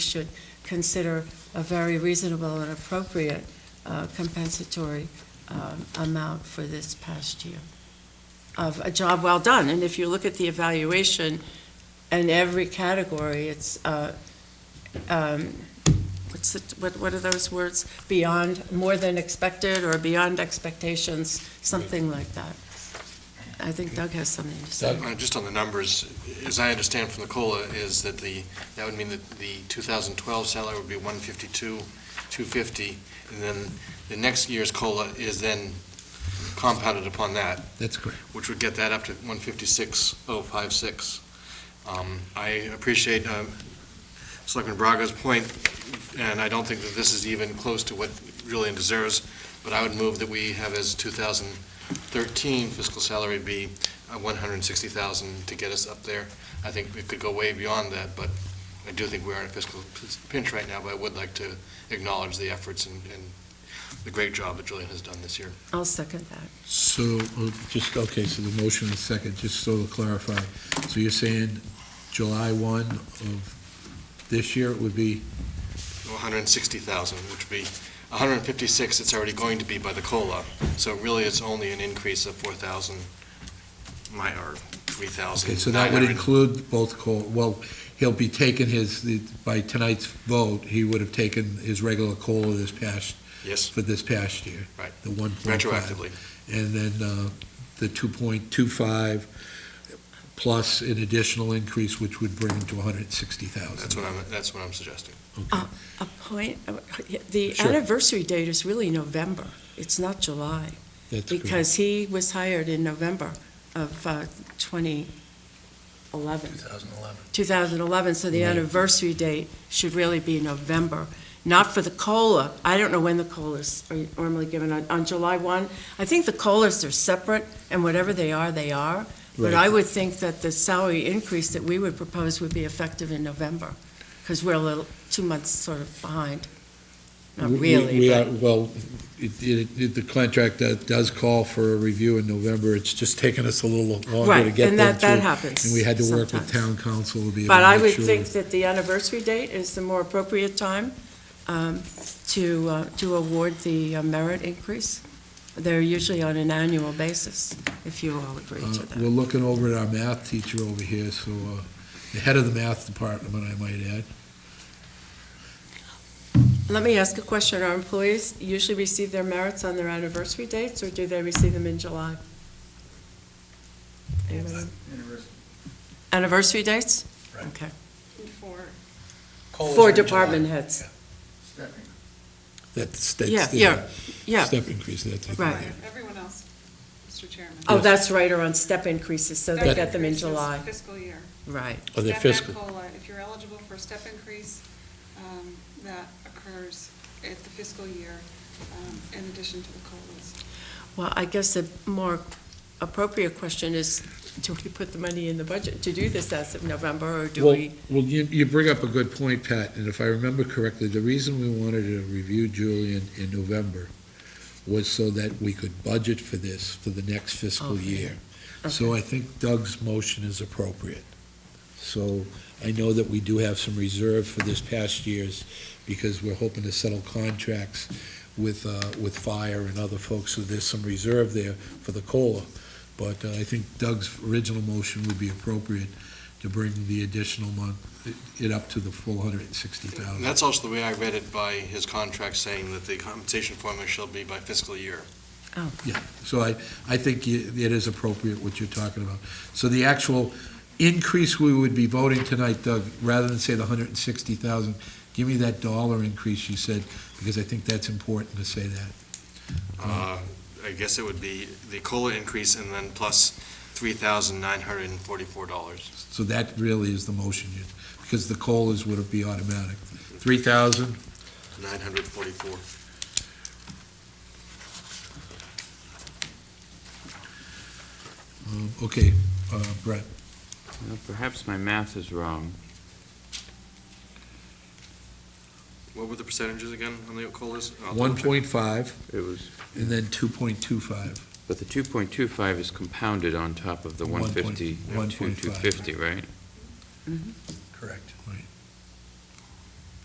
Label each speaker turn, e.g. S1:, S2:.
S1: should consider a very reasonable and appropriate uh, compensatory um, amount for this past year of a job well done. And if you look at the evaluation in every category, it's, uh, um, what's it, what, what are those words? Beyond, more than expected or beyond expectations, something like that. I think Doug has something to say.
S2: Uh, Just on the numbers, as I understand from the COLA, is that the, that would mean that the 2012 salary would be 152, 250, and then the next year's COLA is then compounded upon that,
S3: That's correct.
S2: which would get that up to 156,056. Um, I appreciate um, Selectman Braga's point, and I don't think that this is even close to what Julian deserves, but I would move that we have his 2013 fiscal salary be uh, 160,000 to get us up there. I think it could go way beyond that, but I do think we are in a fiscal pinch right now, but I would like to acknowledge the efforts and and the great job that Julian has done this year.
S1: I'll second that.
S3: So, uh, just, okay, so the motion is second, just so to clarify. So you're saying July 1 of this year would be,
S2: 160,000, which would be 156 it's already going to be by the COLA. So really, it's only an increase of 4,000, my, or 3,000.
S3: okay, so that would include both COLA, well, he'll be taking his, the- by tonight's vote, he would have taken his regular COLA this past,
S2: Yes,
S3: for this past year.
S2: Right.
S3: The 1.5.
S2: retroactively.
S3: And then uh, the 2.25 plus an additional increase, which would bring him to 160,000.
S2: That's what I'm, that's what I'm suggesting.
S3: Okay.
S1: A point, uh, the
S3: Sure.
S1: anniversary date is really November. It's not July.
S3: That's correct.
S1: Because he was hired in November of uh, 2011.
S3: 2011.
S1: 2011, so the
S3: Right.
S1: anniversary date should really be November, not for the COLA. I don't know when the COLAs are normally given, on on July 1. I think the COLAs are separate, and whatever they are, they are. But I
S3: Right.
S1: would think that the salary increase that we would propose would be effective in November, because we're a little, two months sort of behind. Not
S3: We- we- We
S1: really,
S3: are,
S1: but,
S3: well, it, it, it- the contract that does call for a review in November, it's just taken us a little longer to
S1: right,
S3: get them
S1: and that, that
S3: through.
S1: happens
S3: And we had to work
S1: sometimes.
S3: with town council to be able
S1: But I
S3: to
S1: would
S3: make sure.
S1: think that the anniversary date is the more appropriate time um, to, uh, to award the uh, merit increase. They're usually on an annual basis, if you all agree to
S3: Uh, We're
S1: that.
S3: looking over at our math teacher over here, so, uh, the head of the math department, I might add.
S1: Let me ask a question. Are employees usually receive their merits on their anniversary dates, or do they receive them in July? Anybody? Anniversary dates?
S3: Right.
S1: Okay.
S4: For
S1: For department heads.
S4: Stephanie.
S3: That's, that's.
S1: Yeah,
S3: the
S1: yeah, Yeah.
S3: Step increase, that's. I think,
S1: Right.
S3: yeah.
S4: Everyone else, Mr. Chairman.
S1: Oh,
S3: Yes.
S1: that's right, or on step increases, so they
S3: That-
S1: get them in
S4: Increases
S1: July.
S4: Fiscal year.
S1: Right.
S3: Oh, they're
S4: Step and
S3: fiscal.
S4: COLA, if you're eligible for a step increase, um, that occurs at the fiscal year, um, in addition to the COLAs.
S1: Well, I guess a more appropriate question is, do we put the money in the budget to do this as of November, or do
S3: Well,
S1: we?
S3: Well, you, you bring up a good point, Pat, and if I remember correctly, the reason we wanted to review Julian in November was so that we could budget for this for the next fiscal
S1: Okay.
S3: year. So I think Doug's motion is appropriate. So I know that we do have some reserve for this past year's, because we're hoping to settle contracts with, uh, with fire and other folks, so there's some reserve there for the COLA. But uh, I think Doug's original motion would be appropriate to bring the additional month, it- it up to the full hundred and sixty
S2: And
S3: thousand.
S2: that's also the way I read it by his contract saying that the compensation formula shall be by fiscal year.
S3: So I, I think you- it is appropriate what you're talking about. So the actual increase we would be voting tonight, Doug, rather than say the hundred and sixty thousand, give me that dollar increase you said, because I think that's important to say that. Mm-hmm.
S2: Uh, I guess it would be the COLA increase and then plus $3,944.
S3: So that really is the motion, you- because the COLAs would be automatic. Three thousand,
S2: 944.
S3: okay, uh, Brett,
S5: Well, Perhaps my math is wrong.
S2: What were the percentages again on the COLAs? Uh, I'll double
S3: one
S2: check.
S3: point five,
S5: It was,
S3: and then two point two five.
S5: but the 2.25 is compounded on top of the
S3: One point-
S5: 150,
S3: one
S5: to
S3: point five.
S5: 250, right?
S3: Correct. Right.